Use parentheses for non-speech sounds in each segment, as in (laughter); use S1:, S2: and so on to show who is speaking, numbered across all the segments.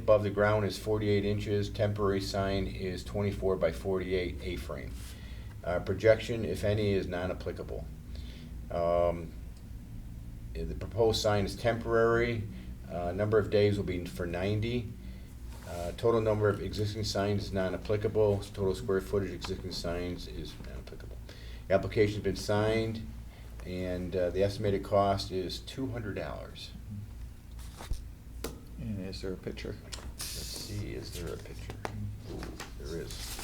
S1: above the ground is forty-eight inches, temporary sign is twenty-four by forty-eight A-frame. Uh, projection, if any, is non-applicable. Um, eh, The proposed sign is temporary, uh, number of days will be for ninety. Uh, Total number of existing signs is non-applicable, total square footage existing signs is non-applicable. The Application's been signed, and uh, the estimated cost is two hundred dollars.
S2: And is there a picture?
S1: Let's see, is there a picture? Ooh, There is.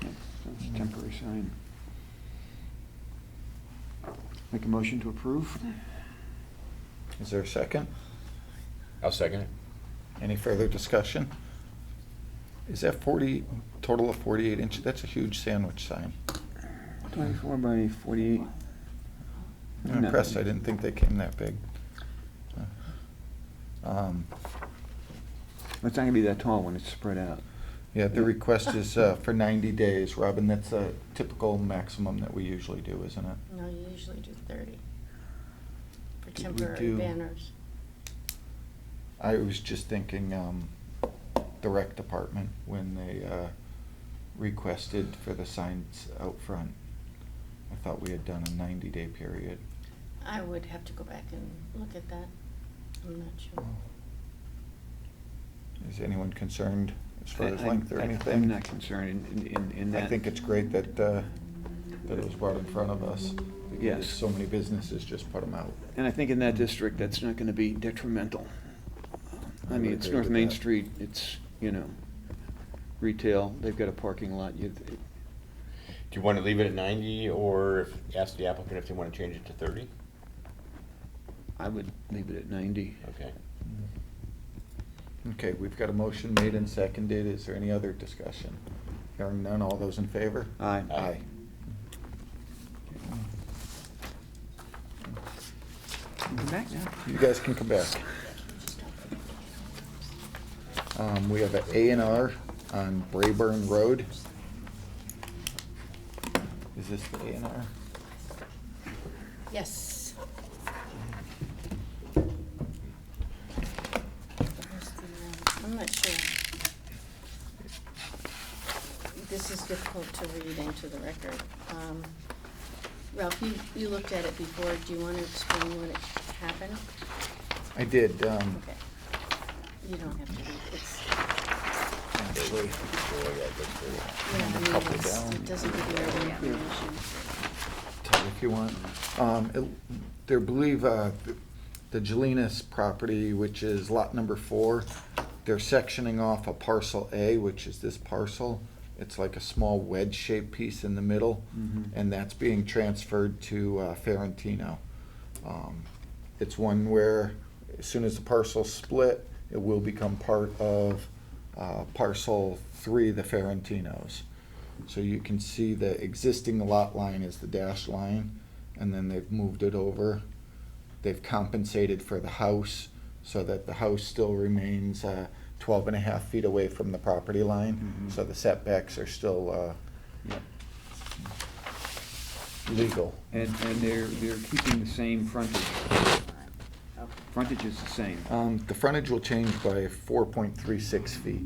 S3: It's a temporary sign. Make a motion to approve?
S2: Is there a second?
S1: I'll second it.
S2: Any further discussion? Is that forty, total of forty-eight inch, that's a huge sandwich sign.
S3: Twenty-four by forty-eight.
S2: I'm
S3: No.
S2: impressed, I didn't think they came that big. Um,
S3: It's not gonna be that tall when it's spread out.
S2: Yeah, the request is uh, for ninety days, Robin, that's a typical maximum that we usually do, isn't it?
S4: No, you usually do thirty for
S2: Did we
S4: temporary
S2: do-
S4: banners.
S2: I was just thinking, um, the rec department, when they, uh, requested for the signs out front. I thought we had done a ninety-day period.
S4: I would have to go back and look at that. I'm not sure.
S2: Oh. Is anyone concerned as far as
S3: I- I-
S2: length or
S3: I-
S2: anything?
S3: I'm not concerned in, in, in that.
S2: I think it's great that, uh, that it was brought in front of us. because
S3: Yes.
S2: So many businesses just put them out.
S3: And I think in that district, that's not gonna be detrimental. I
S2: I would
S3: mean, it's
S2: agree
S3: North
S2: with
S3: Main
S2: that.
S3: Street, it's, you know, retail, they've got a parking lot, you,
S1: Do you want to leave it at ninety, or if- ask the applicant if they want to change it to thirty?
S3: I would leave it at ninety.
S1: Okay.
S2: Okay, we've got a motion made and seconded. Is there any other discussion? Hearing none, all those in favor?
S3: Aye.
S1: Aye.
S3: Come back now.
S2: You guys can come back.
S4: Just don't forget to get all those.
S2: Um, we have an A and R on Brayburn Road. Is this the A and R?
S4: Yes. Where's the, uh, I'm not sure. This is difficult to read into the record. Um, Ralph, you, you looked at it before. Do you want to explain what it happened?
S2: I did, um,
S4: Okay. You don't have to read. It's,
S2: actually.
S4: yeah, I mean,
S2: Couple
S4: it's-
S2: down.
S4: it doesn't give you every information.
S2: Todd, if you want. Um, it- They believe uh, the Jelinas property, which is lot number four, they're sectioning off a parcel A, which is this parcel. It's like a small wedge-shaped piece in the middle,
S3: Mhm.
S2: and that's being transferred to uh, Ferentino. Um, It's one where, as soon as the parcel's split, it will become part of uh, parcel three, the Ferentinos. So you can see the existing lot line is the dashed line, and then they've moved it over. They've compensated for the house, so that the house still remains uh, 12 and a half feet away from the property line.
S3: Mhm.
S2: So the setbacks are still
S3: Yep.
S2: uh, legal.
S3: And, and they're, they're keeping the same frontage. Frontage is the same.
S2: Um, The frontage will change by 4.36 feet.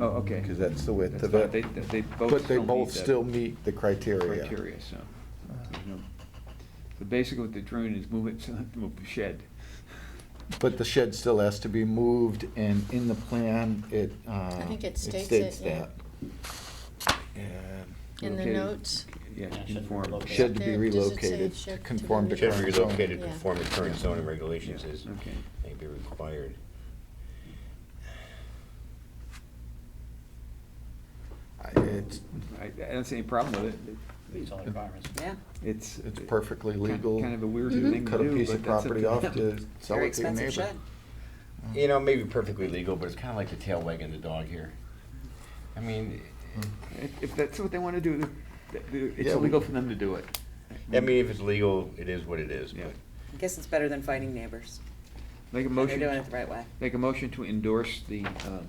S3: Oh, okay.
S2: Because that's the width
S3: That's
S2: of
S3: not-
S2: it.
S3: They, they both
S2: But they
S3: still meet
S2: both
S3: that
S2: still meet the criteria. Uh,
S3: Criteria, so. there's no- So basically what they're doing is move (laughs) it, so they have to move the shed.
S2: But the shed still has to be moved, and in the plan, it, uh.
S4: I think it states it, yeah.
S2: that. And
S4: In the
S3: Located-
S4: notes?
S3: Yeah,
S5: Yeah, should
S3: conform.
S5: relocate.
S2: Shed to be
S4: There- does it say
S2: relocated
S4: shed
S2: to
S4: to be
S2: conform to
S1: Should
S2: current
S1: be
S2: zoning.
S1: relocated to
S4: Yeah.
S1: conform to current zoning regulations is,
S3: Okay.
S1: may be required.
S2: I- It's,
S3: I, I don't see any problem with it.
S5: Meets all requirements.
S6: Yeah,
S3: It's.
S2: it's perfectly legal.
S3: Kind of a weird
S4: Mm-hmm.
S6: Mhm.
S3: thing to
S2: Cut a
S3: do,
S2: piece of
S3: but that's up
S2: property
S3: to
S2: off
S3: them.
S2: to sell
S6: very
S2: it to your
S6: expensive
S2: neighbor.
S6: shed.
S1: You know, maybe perfectly legal, but it's kind of like the tail wagging the dog here. I mean,
S3: Hmm. If, if that's what they want to do, th- th- it's
S2: Yeah, we-
S3: illegal for them to do it.
S1: I mean, if it's legal, it is what it is,
S3: Yeah.
S1: but.
S6: I guess it's better than fighting neighbors.
S3: Make a
S6: And They're
S3: motion.
S6: doing it the right way.
S3: Make a motion to endorse the um,